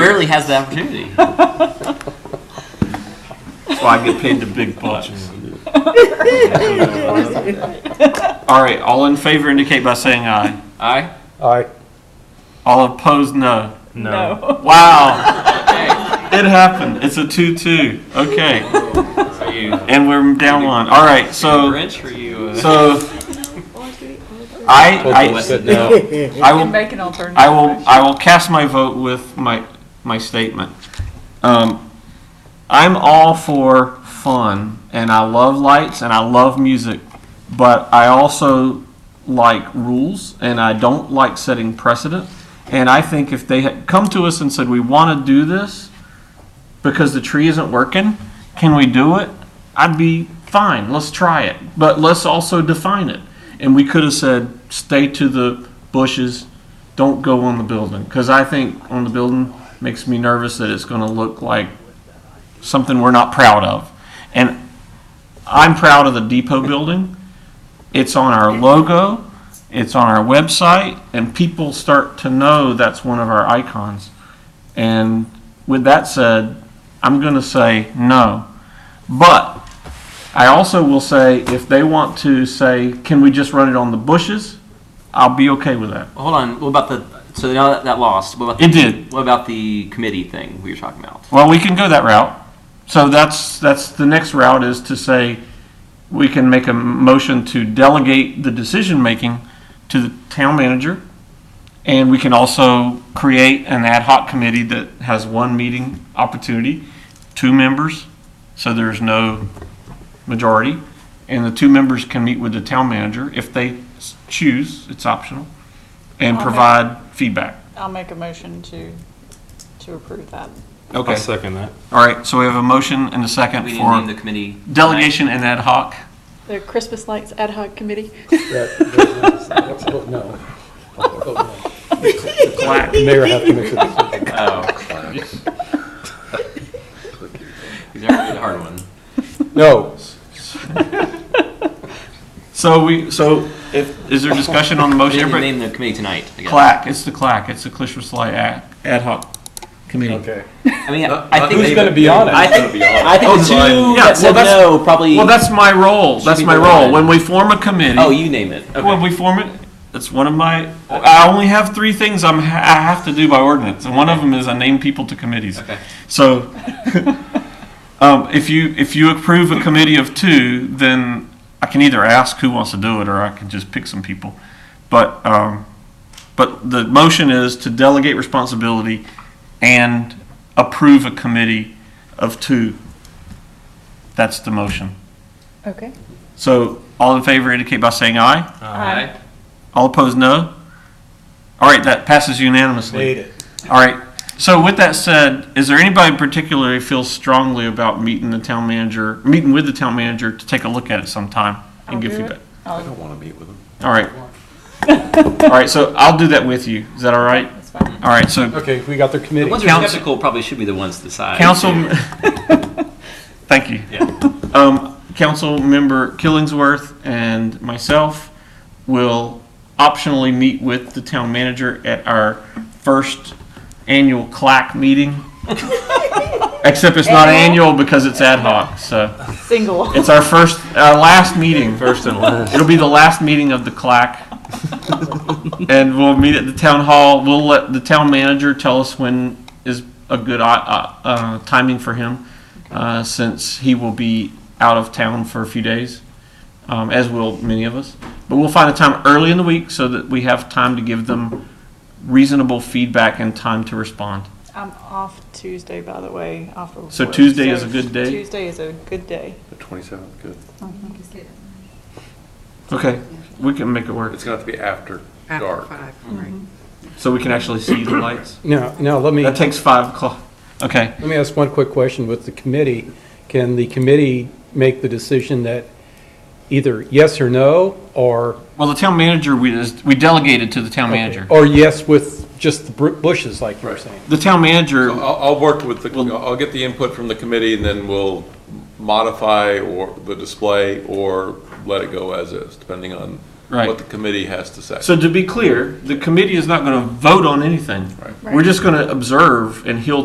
rarely has the opportunity. That's why I get paid the big bucks. All right, all in favor indicate by saying aye. Aye. Aye. All opposed, no. No. Wow, Okay. it happened. It's a two-two. Okay, Are you and we're down one. All right, so so wrench or you? Uh, so I Listen, now. I I can will make an alternative. I will, I will cast my vote with my, my statement. Um, I'm all for fun, and I love lights, and I love music, but I also like rules, and I don't like setting precedent. And I think if they had come to us and said, we want to do this because the tree isn't working, can we do it? I'd be fine, let's try it, but let's also define it. And we could have said, stay to the bushes, don't go on the building, because I think on the building makes me nervous that it's gonna look like something we're not proud of. And I'm proud of the depot building. It's on our logo, it's on our website, and people start to know that's one of our icons. And with that said, I'm gonna say no. But I also will say, if they want to say, can we just run it on the bushes? I'll be okay with that. hold on. What about the? So now that that lost. What about the, It did. What about the committee thing we were talking about? Well, we can go that route. So that's, that's, the next route is to say, we can make a motion to delegate the decision-making to the town manager, and we can also create an ad hoc committee that has one meeting opportunity, two members, so there's no majority, and the two members can meet with the town manager if they s- choose, it's optional, and Okay. provide feedback. I'll make a motion to, to approve that. Okay, second that. all right, so we have a motion and a second We for. didn't name the committee. Delegation and ad hoc. The Christmas lights ad hoc committee. No. Black. The Mayor have to make a decision. Oh. These are the hard one. No. So we, so if, is there discussion on the We motion? didn't Everybody- name the committee tonight. I guess. Clack, it's the clack, it's the Clishers Light ad, ad hoc committee. Okay. I mean, I, I think Who's they- gonna be on it? I think, I think the two fine. Yeah, that said well, that's- no probably. Well, that's my role, that's Should be my the role. one. When we form a committee. oh, you name it. Okay. When we form it, it's one of my, I only have three things I'm, I have to do by ordinance, and one of them is I name people to committees. Okay. So, um, if you, if you approve a committee of two, then I can either ask who wants to do it, or I can just pick some people. But, um, but the motion is to delegate responsibility and approve a committee of two. That's the motion. Okay. So, all in favor indicate by saying aye. Aye. All opposed, no? All right, that passes unanimously. Made it. All right, so with that said, is there anybody in particular who feels strongly about meeting the town manager, meeting with the town manager to take a look at it sometime I'll and give do it. feedback? I'll- want to meet with him. All right. All right, so I'll do that with you. Is that all right? That's fine. All right, so Okay, we got their The committee. ones who are Council- skeptical probably should be the ones to decide. council, thank you. Yeah. Um, council member Killingsworth and myself will optionally meet with the town manager at our first annual clack meeting. Except it's not annual because it's ad hoc, so Single. it's our first, our last meeting. First and last. It'll be the last meeting of the clack. And we'll meet at the town hall. We'll let the town manager tell us when is a good uh, uh, timing for him, uh, since he will be out of town for a few days, um, as will many of us. But we'll find a time early in the week so that we have time to give them reasonable feedback and time to respond. I'm off Tuesday, by the way, off of. So work, Tuesday is a good day? Tuesday is a good day. The 27th, good. Okay, we can make it work, It's going to have to be after After dark. five, right. so we can actually see the lights. Now, now, let me, That let takes five o'clock. Okay. me ask one quick question with the committee. Can the committee make the decision that either yes or no, or? Well, the town manager, we, is- we delegated to the town manager. Or yes with just the br- bushes, like you were Right. saying? The town manager, So I'll, I'll work with the, I'll I'll get the input from the committee and then we'll modify or the display or let it go as is, depending on Right. what the committee has to say. so to be clear, the committee is not going to vote on anything. Right. We're just going to observe, and he'll